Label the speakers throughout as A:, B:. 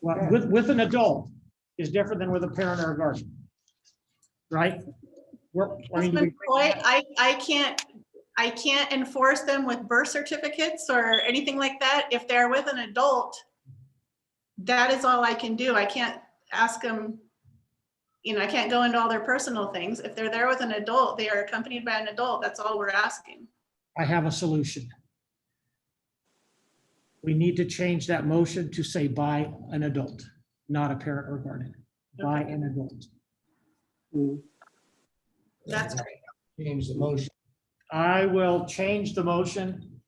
A: Well, with, with an adult is different than with a parent or a guardian. Right? We're, I mean, do
B: Councilman
A: we-
B: Foy, I, I can't, I can't enforce them with birth certificates or anything like that. If they're with an adult, that is all I can do. I can't ask them, you know, I can't go into all their personal things. If they're there with an adult, they are accompanied by an adult. That's all we're asking.
A: I have a solution. We need to change that motion to say by an adult, not a parent or guardian, by an adult.
B: That's great.
C: Change the motion.
A: I will change the motion.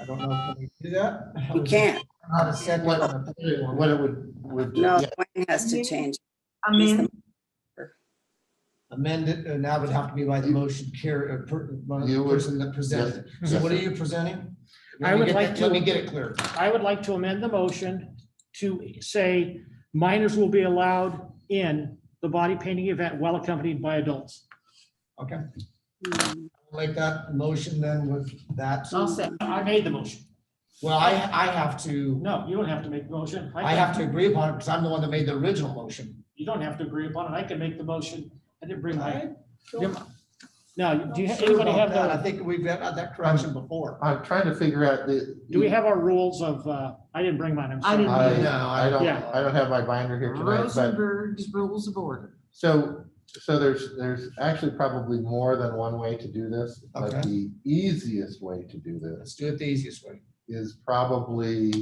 C: I don't know, can we do that?
D: You can't.
C: Not a second, or a third one, what it would, would.
D: No,
C: yeah,
D: Wayne has to change.
E: I
D: He's
E: mean,
D: the-
C: Amend it, and that would have to be by the motion uh, carrier,
F: You would-
C: person that presented. So what are you presenting? Let
A: I
C: me
A: would
C: get
A: like
C: that-
A: to-
C: Let me get it clear.
A: I would like to amend the motion to say minors will be allowed in the body painting event while accompanied by adults.
C: Okay,
E: hmm.
D: Mm,
C: make that motion then with that.
D: I'll say.
A: I made the motion.
C: Well, I, I have to,
A: No, you don't have to make the motion.
C: I have to agree upon it because I'm the one that made the original motion.
A: You don't have to agree upon it. I can make the motion. I didn't bring my.
C: I
A: Now, do you,
C: Sure
A: anybody
C: about
A: have
C: that. I
A: the,
C: think we've had that correction before.
F: I'm trying to figure out the.
A: do we have our rules of, uh, I didn't bring mine, I'm
E: I
A: sorry.
E: didn't.
F: I,
C: No,
F: I don't,
A: Yeah.
F: I don't have my binder here tonight, but,
E: Rosenberg's Rules of Order.
F: so, so there's, there's actually probably more than one way to do this. But
C: Okay.
F: the easiest way to do this
C: Let's do it the easiest way.
F: is probably,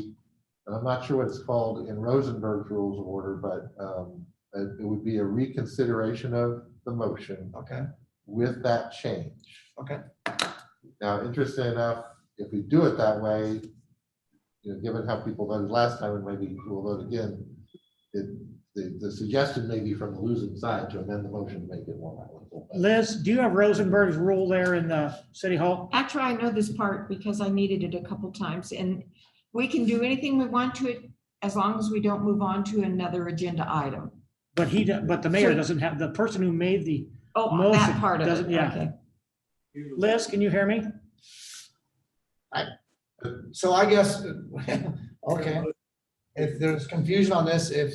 F: and I'm not sure what it's called in Rosenberg's Rules of Order, but, um, it it would be a reconsideration of the motion
C: Okay,
F: with that change.
C: okay.
F: Now, interesting enough, if we do it that way, you know, given how people voted last time and maybe we'll vote again, it, the, the suggestion may be from the losing side to amend the motion to make it more palatable.
A: Liz, do you have Rosenberg's rule there in the city hall?
E: Actually, I know this part because I needed it a couple times and we can do anything we want to it as long as we don't move on to another agenda item.
A: But he, do- but the mayor
E: Sure.
A: doesn't have, the person who made the,
E: Oh,
A: Motion
E: that part of
A: doesn't-
E: it,
A: yeah.
E: okay.
A: Liz, can you hear me?
C: So I guess, okay, if there's confusion on this, if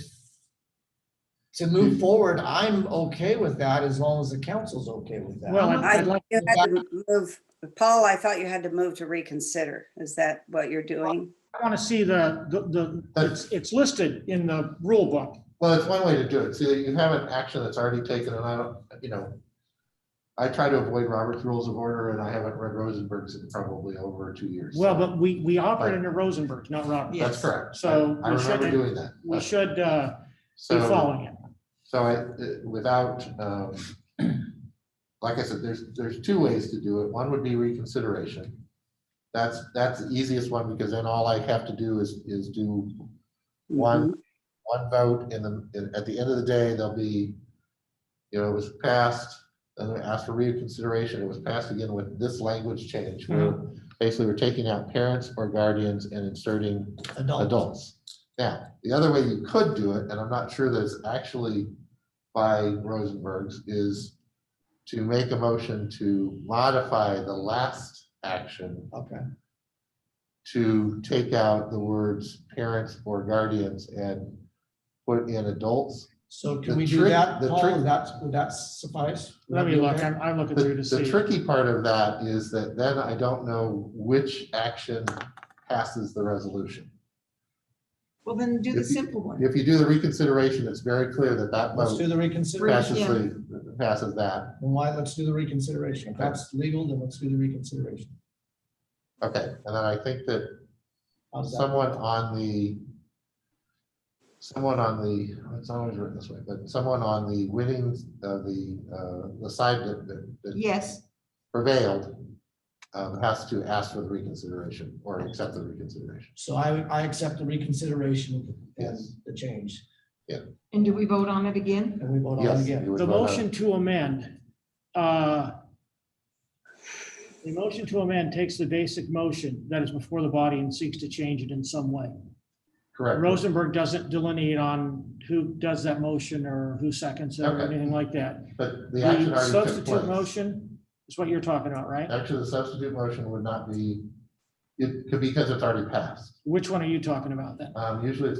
C: to move forward, I'm okay with that as long as the council's okay with that.
A: Well, I'd I'd like,
D: You had to move, Paul, I thought you had to move to reconsider. Is that what you're doing?
A: I want to see the, the- the, it's, it's listed in the rule book.
F: Well, it's one way to do it. See, you have an action that's already taken and I don't, you know, I try to avoid Robert's Rules of Order and I haven't read Rosenberg's in probably over two years.
A: Well,
F: so
A: but we, we operate under Rosenberg, not Robert.
E: Yeah.
F: That's correct.
A: So
F: I
A: we
F: remember
A: shouldn't-
F: doing that.
A: We should, uh, be
F: So-
A: following it.
F: So I, uh, without, um, like I said, there's, there's two ways to do it. One would be reconsideration. That's, that's the easiest one because then all I have to do is, is do one, one vote in the, in- at the end of the day, there'll be, you know, it was passed, then I asked for reconsideration. It was passed again with this language change where basically we're taking out parents or guardians and inserting
C: Adult,
F: adults. Now, the other way you could do it, and I'm not sure that it's actually by Rosenberg's, is to make a motion to modify the last action
C: okay,
F: to take out the words parents or guardians and put in adults.
C: so
F: The
C: can we do
F: trick-
C: that,
F: the
C: Paul,
F: trick-
C: Would that, would that suffice? Would
A: Let
C: that
A: me
C: be
A: look,
C: okay?
A: I'm, I'm looking
F: The
A: through to
F: the
A: see.
F: tricky part of that is that then I don't know which action passes the resolution.
E: Well, then do the
F: If you-
E: simple one.
F: If you do the reconsideration, it's very clear that that
C: Let's do
F: vote
C: the reconsideration.
F: passes, the- passes that.
C: Then why, let's do the reconsideration. If that's legal, then let's do the reconsideration.
F: Okay, and then I think that
C: How's that?
F: someone on the, someone on the, it's always written this way, but someone on the winning, uh, the, uh, the side that- that that
E: Yes,
F: prevailed um, has to ask for the reconsideration or accept the reconsideration.
C: So I, I accept the reconsideration and
F: Yes.
C: the change,
E: and do we vote on it again?
C: and we vote on it
F: Yes.
C: again.
F: you would
A: The
F: vote on it.
A: motion to amend, uh, the motion to amend takes the basic motion that is before the body and seeks to change it in some way.
F: Correct.
A: Rosenberg doesn't delineate on who does that motion or who seconds it or
F: Okay.
A: anything like that.
F: But the action
A: The
F: already took
A: substitute
F: place.
A: motion is what you're talking about, right?
F: Actually, the substitute motion would not be, it could, because it's already passed.
A: Which one are you talking about then?
F: Um, Usually it's